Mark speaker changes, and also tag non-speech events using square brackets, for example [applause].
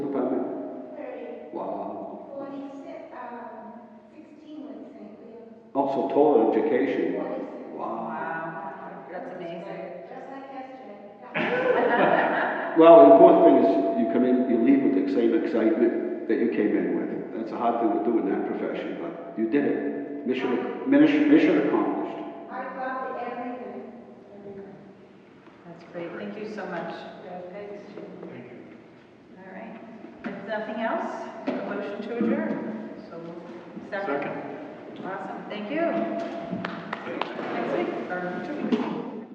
Speaker 1: So total education, wow.
Speaker 2: Wow, that's amazing.
Speaker 3: Just like yesterday.
Speaker 2: [laughs]
Speaker 1: Well, the important thing is you come in, you leave with the same excitement that you came in with. That's a hard thing to do in that profession, but you did it. Mission, mission, mission accomplished.
Speaker 3: I thought that everything, everything.
Speaker 2: That's great, thank you so much. Thanks. All right, if nothing else, a motion to adjourn. So, moved. second? Awesome, thank you. Next week, or two weeks.